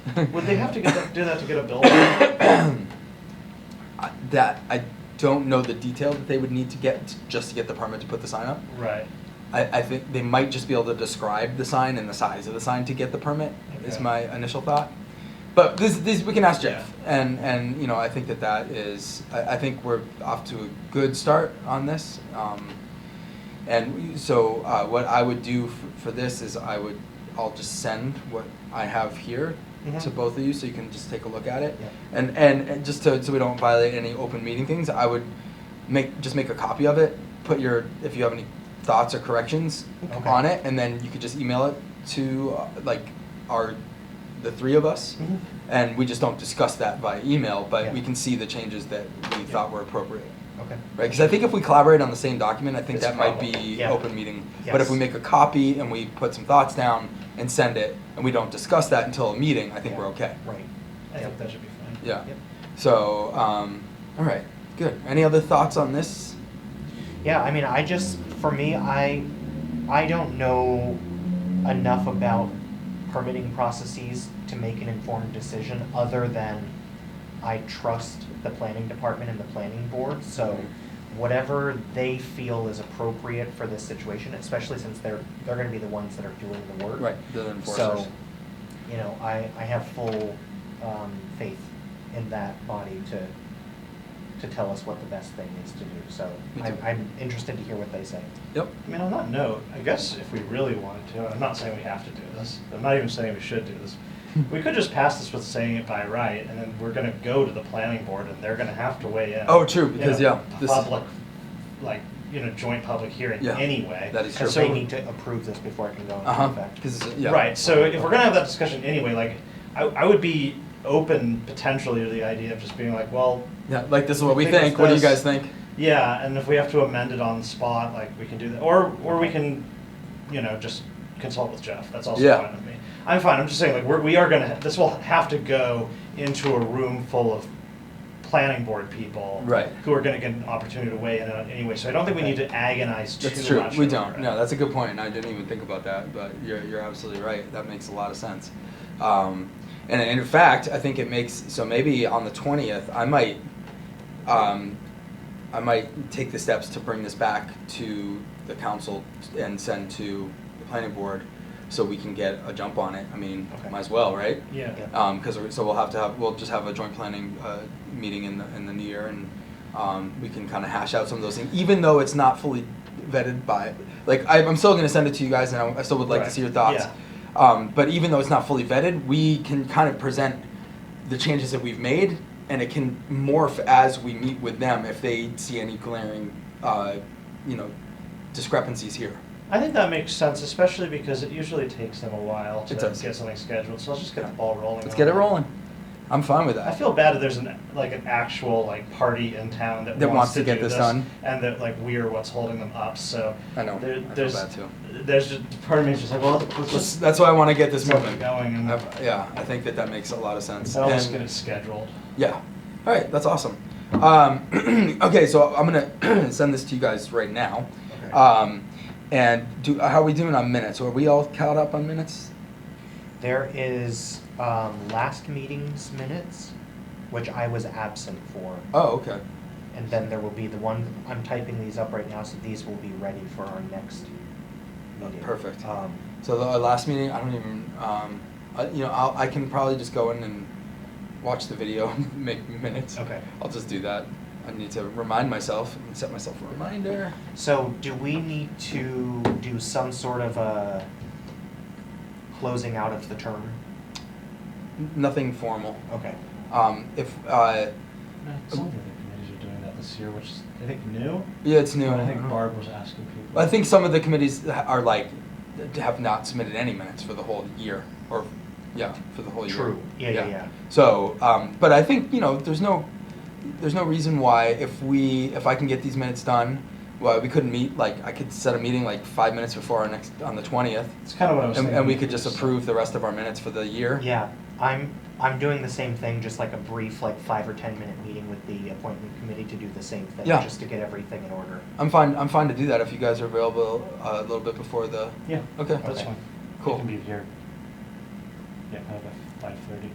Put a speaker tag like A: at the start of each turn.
A: Would they have to get that, do that to get a building?
B: I- that I don't know the detail that they would need to get t- just to get the permit to put the sign up.
A: right.
B: I, I think they might just be able to describe the sign and the size of the sign to get the permit. Is
A: Okay.
B: my initial thought. But this, this we can ask Jeff, and and you know I think that that is I, I think we're off to a good start on this. Um, and we- so uh, what I would do f- for this is I would I'll just send what I have here to
A: Mhm.
B: both of you so you can just take a look at it.
A: Yeah.
B: And, and and just to so we don't violate any open meeting things, I would make just make a copy of it. Put your if you have any thoughts or corrections
A: Okay.
B: on it, and then you could just email it to uh, like our the three of us,
A: Mhm.
B: and we just don't discuss that by email, but we
A: Yeah.
B: can see the changes that we
A: Yeah.
B: thought were appropriate.
A: Okay.
B: Right, because I think if we collaborate on the same document, I think
A: It's
B: that might be
A: probably- yeah.
B: open meeting. But if we
A: Yes.
B: make a copy and we put some thoughts down and send it, and we don't discuss that until a meeting, I think
A: Yeah.
B: we're okay.
A: Right. I think that should be fine.
B: Yeah.
A: Yep.
B: So, um, all right, good. Any other thoughts on this?
C: Yeah, I mean, I just for me, I I don't know enough about permitting processes to make an informed decision other than I trust the planning department and the planning board. So whatever they feel is appropriate for this situation, especially since they're they're going to be the ones that are doing the work.
B: Right, the enforcers.
C: So, you know, I, I have full um, faith in that body to, to tell us what the best thing is to do. So
B: Me
C: I'm,
B: too.
C: I'm interested to hear what they say.
B: Yep.
A: I mean, on that note, I guess if we really wanted to, I'm not saying we have to do this. I'm not even saying we should do this. We could just pass this with saying it by right, and then we're gonna go to the planning board, and they're gonna have to weigh in.
B: Oh, true,
A: in
B: because,
A: a
B: yeah, this-
A: Public, like, you know, joint public hearing
B: Yeah,
A: anyway.
B: that is true.
A: And
C: Because
A: so
C: they need to approve this before it can go into
B: Uh huh.
C: effect.
B: Because yeah.
A: Right. So if we're gonna have that discussion anyway, like, I, I would be open potentially to the idea of just being like, well,
B: Yeah, like this is what we
A: I think
B: think.
A: it's
B: What do you guys
A: this.
B: think?
A: yeah, and if we have to amend it on the spot, like, we can do that, or, or we can, you know, just consult with Jeff, that's also
B: Yeah.
A: fine with me. I'm fine, I'm just saying, like, we're, we are gonna, this will have to go into a room full of planning board people.
B: Right.
A: Who are gonna get an opportunity to weigh in on it anyway, so I don't think we need to agonize too much.
B: That's true. We
A: over
B: don't.
A: it.
B: No, that's a good point, and I didn't even think about that. But you're you're absolutely right. That makes a lot of sense. Um, and in fact, I think it makes so maybe on the twentieth, I might, um, I might take the steps to bring this back to the council and send to the planning board, so we can get a jump on it. I mean,
A: Okay.
B: might as well, right?
A: Yeah.
C: Yeah.
B: Um, because so we'll have to have we'll just have a joint planning uh, meeting in the in the new year, and um, we can kind of hash out some of those things. Even though it's not fully vetted by, like I, I'm still going to send it to you guys, and I, I still would like to
A: Right.
B: see your thoughts.
A: Yeah.
B: Um, but even though it's not fully vetted, we can kind of present the changes that we've made, and it can morph as we meet with them if they see any glaring, uh, you know, discrepancies here.
A: I think that makes sense, especially because it usually takes them a while to
B: It does.
A: get something scheduled. So let's just get the ball rolling.
B: Let's
A: on
B: get it rolling. I'm fine with that.
A: I feel bad that there's an like an actual like party in town that,
B: That wants
A: wants
B: to
A: do
B: get this done.
A: and that like we are what's holding them up. So
B: I know. I
A: There,
B: feel
A: there's
B: bad too.
A: there's just part of me is just like, well, let's, let's,
B: That's, that's why I want to get this
A: Something
B: moving.
A: going and-
B: I've- yeah, I think that that makes a lot of sense.
A: I'll just
B: And-
A: get it scheduled.
B: Yeah. All right, that's awesome. Um, okay, so I'm gonna send this to you guys right now.
A: Okay.
B: Um, and do how are we doing on minutes? Are we all caught up on minutes?
C: There is um, last meeting's minutes, which I was absent for.
B: Oh, okay.
C: And then there will be the one, I'm typing these up right now, so these will be ready for our next meeting.
B: Perfect.
C: Um,
B: So the our last meeting, I don't even. Um, I, you know, I'll, I can probably just go in and watch the video, and make minutes.
A: Okay.
B: I'll just do that. I need to remind myself and set myself a reminder.
C: So do we need to do some sort of a closing out of the term?
B: N- nothing formal.
C: Okay.
B: Um, if uh,
A: Some of the other committees are doing that this year, which is, I think new.
B: yeah, it's new.
A: I think Barb was asking people.
B: I think some of the committees ha- are like, th- have not submitted any minutes for the whole year, or, yeah, for the whole year.
C: True. Yeah, yeah, yeah.
B: So, um, but I think, you know, there's no, there's no reason why if we, if I can get these minutes done, why we couldn't meet, like, I could set a meeting like five minutes before our next, on the twentieth,
A: it's kind of what Oh, I was
B: and,
A: thinking.
B: and we could just approve the rest of our minutes for the year.
C: Yeah, I'm, I'm doing the same thing, just like a brief, like five or 10 minute meeting with the appointment committee to do the same thing,
B: Yeah.
C: just to get everything in order.
B: I'm fine, I'm fine to do that if you guys are available uh, a little bit before the,
A: Yeah.
B: okay.
A: That's
C: Okay.
A: fine.
B: Cool.
A: I can be here. Yeah, kind of at five thirty.